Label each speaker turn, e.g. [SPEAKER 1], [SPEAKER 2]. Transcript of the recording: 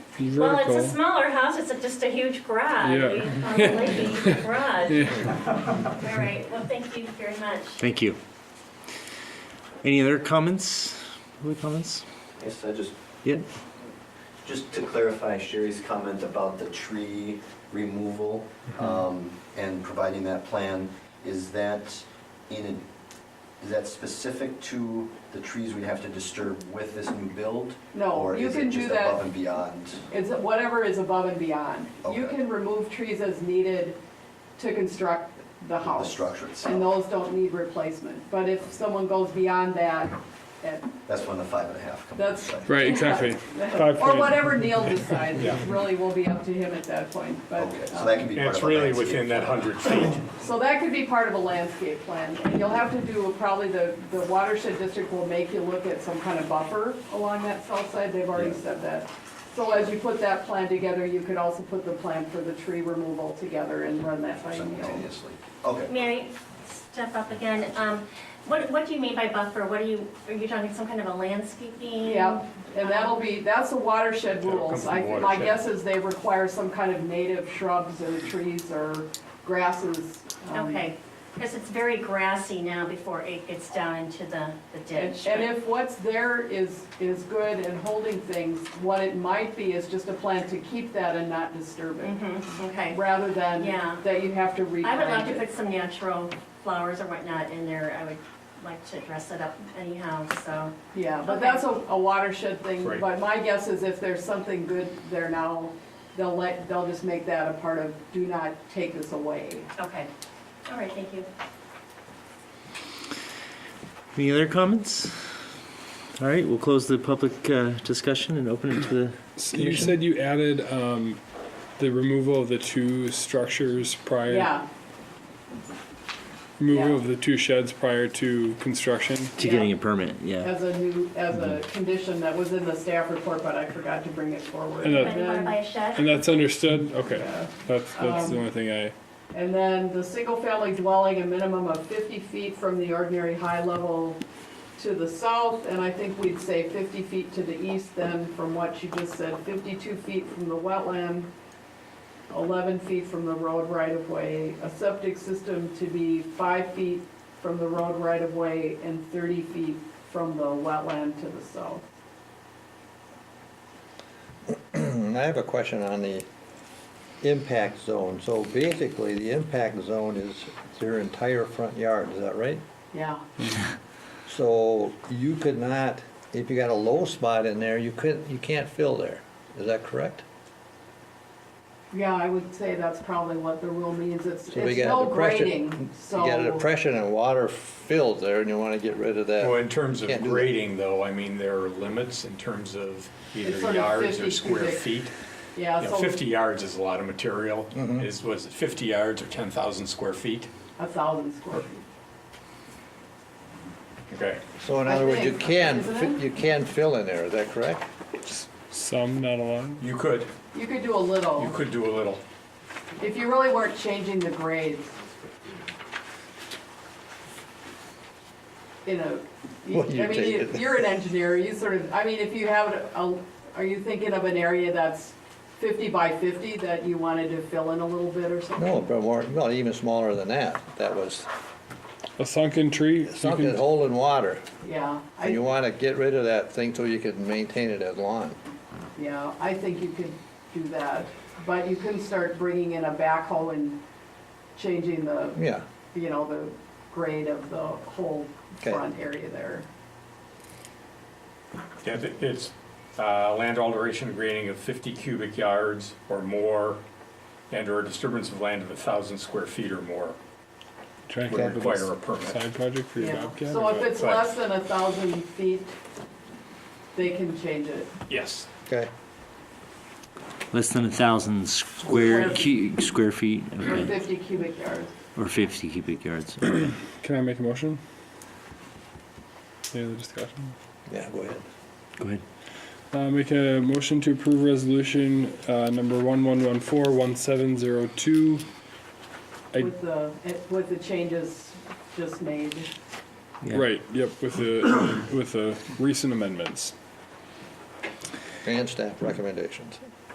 [SPEAKER 1] be
[SPEAKER 2] Well,
[SPEAKER 1] vertical.
[SPEAKER 2] it's a smaller house, it's a- just a huge garage.
[SPEAKER 1] Yeah.
[SPEAKER 2] On the lake, a huge garage. All right, well, thank you very much.
[SPEAKER 3] Thank you. Any other comments? Other comments?
[SPEAKER 4] Yes, I just,
[SPEAKER 3] Yeah.
[SPEAKER 4] just to clarify Sherry's comment about the tree removal
[SPEAKER 5] Mm-hmm.
[SPEAKER 4] um, and providing that plan, is that in, a- is that specific to the trees we have to disturb with this new build?
[SPEAKER 6] No,
[SPEAKER 4] Or
[SPEAKER 6] you
[SPEAKER 4] is it
[SPEAKER 6] can do
[SPEAKER 4] just
[SPEAKER 6] that-
[SPEAKER 4] above and beyond?
[SPEAKER 6] It's whatever is above and beyond. You
[SPEAKER 4] Okay.
[SPEAKER 6] can remove trees as needed to construct the house.
[SPEAKER 4] structure itself.
[SPEAKER 6] And those don't need replacement. But if someone goes beyond that, it-
[SPEAKER 4] That's when the five and a half comes into
[SPEAKER 6] That's-
[SPEAKER 4] play.
[SPEAKER 1] Right, exactly. Five
[SPEAKER 6] or
[SPEAKER 1] feet.
[SPEAKER 6] whatever Neil decides, it really will be up to him at that point. But,
[SPEAKER 4] Okay, so that can be
[SPEAKER 5] And
[SPEAKER 4] part of
[SPEAKER 5] it's
[SPEAKER 4] the
[SPEAKER 5] really
[SPEAKER 4] landscape.
[SPEAKER 5] within that 100 feet.
[SPEAKER 6] um, So that could be part of a landscape plan. And You'll have to do, probably the, the watershed district will make you look at some kind of buffer along that south side. They've already
[SPEAKER 4] Yeah.
[SPEAKER 6] said that. So as you put that plan together, you could also put the plan for the tree removal together and run that by Neil.
[SPEAKER 4] Simultaneously, okay.
[SPEAKER 2] Mary, step up again. Um, What, what do you mean by buffer? What are you, are you talking some kind of a landscaping?
[SPEAKER 1] Um,
[SPEAKER 6] Yeah, and that'll be, that's the watershed rules. I, my guess is they require some kind of native shrubs or trees or grasses. um,
[SPEAKER 2] Okay, because it's very grassy now before it gets down into the the
[SPEAKER 6] And
[SPEAKER 2] ditch.
[SPEAKER 6] and if what's there is, is good and holding things, what it might be is just a plan to keep that and not disturb it,
[SPEAKER 2] Mhm, Okay.
[SPEAKER 6] rather than
[SPEAKER 2] Yeah.
[SPEAKER 6] that you have to
[SPEAKER 2] I would like
[SPEAKER 6] replant
[SPEAKER 2] to put
[SPEAKER 6] it.
[SPEAKER 2] some natural flowers or whatnot in there. I would like to dress it up anyhow, so.
[SPEAKER 6] Yeah, but
[SPEAKER 2] Okay.
[SPEAKER 6] that's a a watershed thing,
[SPEAKER 5] Right.
[SPEAKER 6] but my guess is if there's something good there now, they'll let, they'll just make that a part of, do not take this away.
[SPEAKER 2] Okay, all right, thank you.
[SPEAKER 3] Any other comments? All right, we'll close the public uh, discussion and open it to the
[SPEAKER 1] You
[SPEAKER 3] commission.
[SPEAKER 1] said you added um, the removal of the two structures prior.
[SPEAKER 6] Yeah,
[SPEAKER 1] Removal
[SPEAKER 6] yeah.
[SPEAKER 1] of the two sheds prior to construction.
[SPEAKER 3] To getting a Mm-hmm. permit, yeah.
[SPEAKER 6] as a new, as a condition that was in the staff report, but I forgot to bring it forward.
[SPEAKER 1] And, uh,
[SPEAKER 2] Anybody want to buy a shed?
[SPEAKER 1] And that's understood. Okay,
[SPEAKER 6] Yeah.
[SPEAKER 1] that's that's
[SPEAKER 6] Um,
[SPEAKER 1] the only thing I.
[SPEAKER 6] And then the single-family dwelling, a minimum of 50 feet from the ordinary high level to the south, and I think we'd say 50 feet to the east then from what you just said, 52 feet from the wetland, 11 feet from the road right-of-way, a septic system to be 5 feet from the road right-of-way and 30 feet from the wetland to the south.
[SPEAKER 7] Hmm, I have a question on the impact zone. So basically, the impact zone is their entire front yard, is that right?
[SPEAKER 6] Yeah,
[SPEAKER 7] So you could not, if you got a low spot in there, you couldn't, you can't fill there, is that correct?
[SPEAKER 6] yeah, I would say that's probably what the rule means. It's
[SPEAKER 7] So we
[SPEAKER 6] it's
[SPEAKER 7] got
[SPEAKER 6] no
[SPEAKER 7] depression-
[SPEAKER 6] grading, so.
[SPEAKER 7] You got a depression and water fills there and you wanna get rid of
[SPEAKER 5] Well,
[SPEAKER 7] that.
[SPEAKER 5] in terms of
[SPEAKER 7] Can't do that.
[SPEAKER 5] grading though, I mean, there are limits in terms of
[SPEAKER 6] It's sort
[SPEAKER 5] either
[SPEAKER 6] of
[SPEAKER 5] yards
[SPEAKER 6] 50
[SPEAKER 5] or square
[SPEAKER 6] cubic.
[SPEAKER 5] feet.
[SPEAKER 6] Yeah,
[SPEAKER 5] You
[SPEAKER 6] so.
[SPEAKER 5] know, 50 yards is a lot of material. Is, was it 50 yards or 10,000 square feet?
[SPEAKER 6] A thousand square feet.
[SPEAKER 5] Okay.
[SPEAKER 7] So in
[SPEAKER 6] I
[SPEAKER 7] other words, you
[SPEAKER 6] think,
[SPEAKER 7] can,
[SPEAKER 6] isn't
[SPEAKER 7] fi-
[SPEAKER 6] it?
[SPEAKER 7] you can fill in there, is that correct?
[SPEAKER 1] Some, not a lot.
[SPEAKER 5] You could,
[SPEAKER 6] You could do a
[SPEAKER 5] you
[SPEAKER 6] little,
[SPEAKER 5] could do a little.
[SPEAKER 6] if you really weren't changing the grades. You know, you-
[SPEAKER 7] Well,
[SPEAKER 6] I
[SPEAKER 7] you
[SPEAKER 6] mean,
[SPEAKER 7] take
[SPEAKER 6] you-
[SPEAKER 7] it.
[SPEAKER 6] you're an engineer, you sort of, I mean, if you have, a, are you thinking of an area that's fifty by fifty that you wanted to fill in a little bit or something?
[SPEAKER 7] No, but more, well, even smaller than that, that was
[SPEAKER 1] A sunken tree. you
[SPEAKER 7] something
[SPEAKER 1] can-
[SPEAKER 7] holding water.
[SPEAKER 6] Yeah,
[SPEAKER 7] And you
[SPEAKER 6] I,
[SPEAKER 7] wanna get rid of that thing so you can maintain it as lawn.
[SPEAKER 6] yeah, I think you could do that, but you couldn't start bringing in a backhoe and changing the
[SPEAKER 7] Yeah,
[SPEAKER 6] you know, the grade of the whole
[SPEAKER 7] Okay.
[SPEAKER 6] front area there.
[SPEAKER 5] Yeah, th- it's uh, land alteration grading of 50 cubic yards or more and/or disturbance of land of 1,000 square feet or more
[SPEAKER 1] Try and
[SPEAKER 5] would
[SPEAKER 1] come up with a
[SPEAKER 5] require a permit.
[SPEAKER 1] side project for your
[SPEAKER 6] Yeah.
[SPEAKER 1] bobcat.
[SPEAKER 6] So
[SPEAKER 1] or
[SPEAKER 6] if
[SPEAKER 1] what?
[SPEAKER 6] it's less than a thousand feet, they can change it.
[SPEAKER 5] Yes.
[SPEAKER 7] okay.
[SPEAKER 3] Less than a thousand square, cu- square feet,
[SPEAKER 6] Or
[SPEAKER 3] okay,
[SPEAKER 6] fifty cubic yards.
[SPEAKER 3] or 50 cubic yards. okay.
[SPEAKER 1] Can I make a motion? Any other discussion?
[SPEAKER 7] Yeah, go ahead.
[SPEAKER 3] Go ahead.
[SPEAKER 1] Uh, make a motion to approve resolution uh, number one one one four one seven zero two. I-
[SPEAKER 6] With the, with the changes just made.
[SPEAKER 3] Yeah.
[SPEAKER 1] Right. Yep. With the with the recent amendments.
[SPEAKER 7] And staff recommendations.